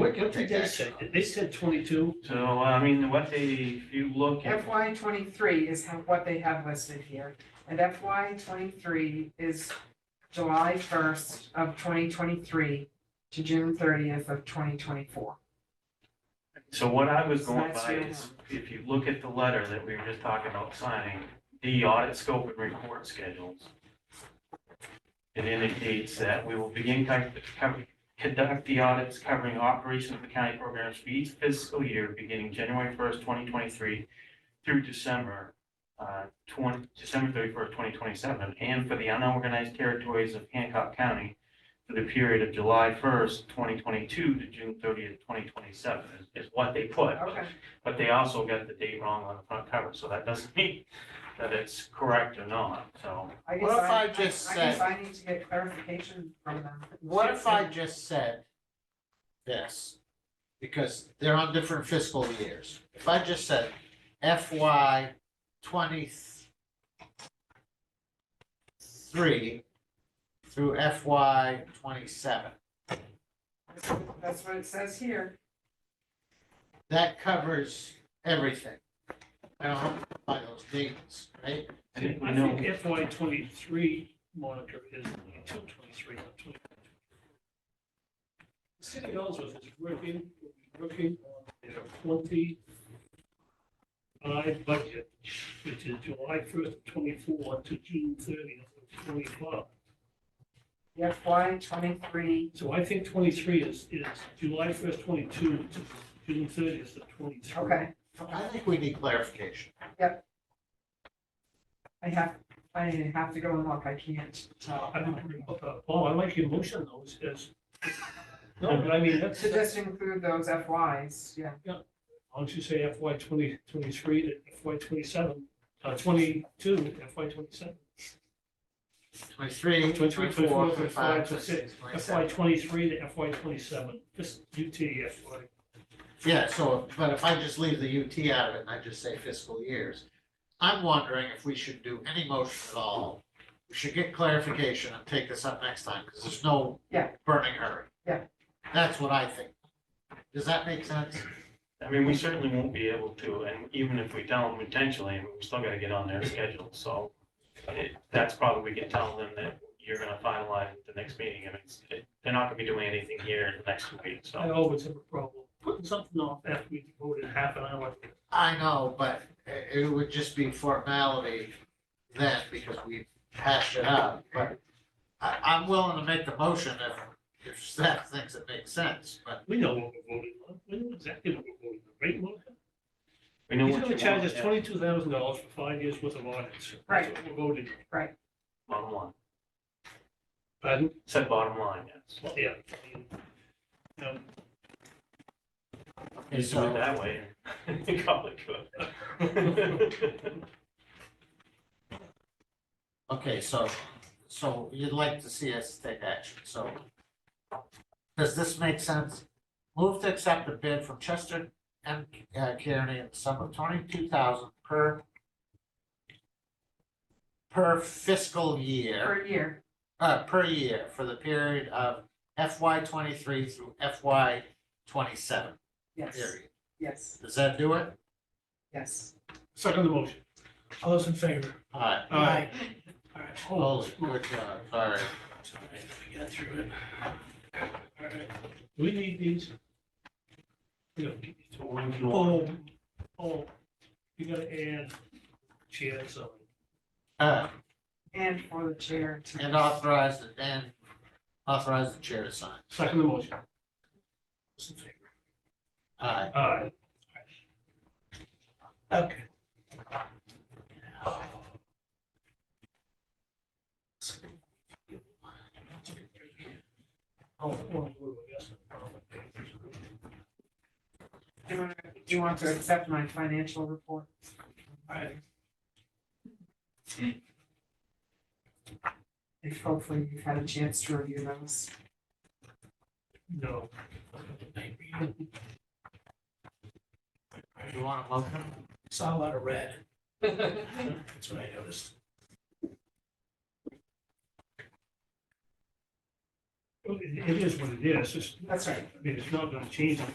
quick, let's Take that just, check. They said twenty-two. So, I mean, what they, if you look at, FY twenty-three is how- what they have listed here, and FY twenty-three is July first of twenty twenty-three to June thirtieth of twenty twenty-four. so what I was going That's by your is, if you look at the letter that we were just talking about signing, the audit scope and report schedules, it indicates that we will begin con- con- conduct the audits covering operations of the county programs for each fiscal year beginning January first, twenty twenty-three through December, uh, twenty, December thirty-first, twenty twenty-seven, and for the unorganized territories of Hancock County for the period of July first, twenty twenty-two to June thirtieth, twenty twenty-seven is what they put. Okay, But they also got the date wrong on the front cover, so that doesn't mean that it's correct or not, so. I guess What if I, I I just guess said- I need to get clarification from them. what if I just said this? Because they're on different fiscal years. If I just said FY twenty-three through FY twenty-seven, That's what- That's what it says here, that covers everything. I don't have to buy those dates, right? I think we I know, think FY twenty-three monitor is twenty-two, twenty-three, not twenty. The city of Ellsworth is working, working on their twenty-five budget, which is July first, twenty-four to June thirtieth, twenty-five. the FY twenty-three, So I think twenty-three is, is July first, twenty-two to June thirtieth of twenty-three. okay, I think we need clarification. I have, I have to go and look, I can't tell. I don't agree with that. Paul, I like your motion though, is, is- no, but I mean, that's, To just include those FYs, yeah, why don't you say FY twenty twenty-three to FY twenty-seven, uh, twenty-two, FY twenty-seven. Twenty-three, 23, twenty-four, twenty-five, 25, twenty-six, FY twenty-seven. twenty-three to FY twenty-seven, just UT FY. Yeah, so, but if I just leave the UT out of it and I just say fiscal years, I'm wondering if we should do any motion at all. We should get clarification and take this up next time, because there's no Yeah. burning hurry. Yeah. That's what I think. Does that make sense? I mean, we certainly won't be able to, and even if we tell them intentionally, we still gotta get on their schedule, so. it- That's probably, we can tell them that you're gonna finalize at the next meeting, and it's, it- they're not gonna be doing anything here in the next week, I so. always have a problem putting something off after we voted half an hour. I know, but i- it would just be formality then because we hashed it out, but I, I'm willing to make the motion if, if staff thinks it makes sense, but We know what we're voting on, we know exactly what we're voting on, right, Monica? We know He's what gonna you want. charge us yeah, twenty-two thousand dollars for five years worth of audits. Right. That's what We're voting, Bottom line, pardon? said bottom line, yes. Well, Yeah. I mean, um, okay, Just do it so, that way, and call it good. okay, so, so you'd like to see us take action, so. Does this make sense? Move to accept a bid from Chester and Kearney in the sum of twenty-two thousand per per fiscal year. per year, uh, per year for the period of FY twenty-three through FY twenty-seven yes, period. yes, Does that do it? yes. Second the motion. All those in favor? All right. All right. All right. Holy, good job, sorry. Sorry, we got through it. All right. Do we need these? No. So when do you want- Oh, oh, you gotta add chairs on. Uh, And for the chair to. and authorize, the- and authorize the chair to sign. Second the motion. Those in favor? All right, All right. Okay. Oh, well, yes. Do you want to- do you want to accept my financial report? All right. If hopefully you've had a chance to review those. No. you want a motion? It's all out of red. That's what I noticed. It it is what it is, it's, That's right. I mean, it's not gonna change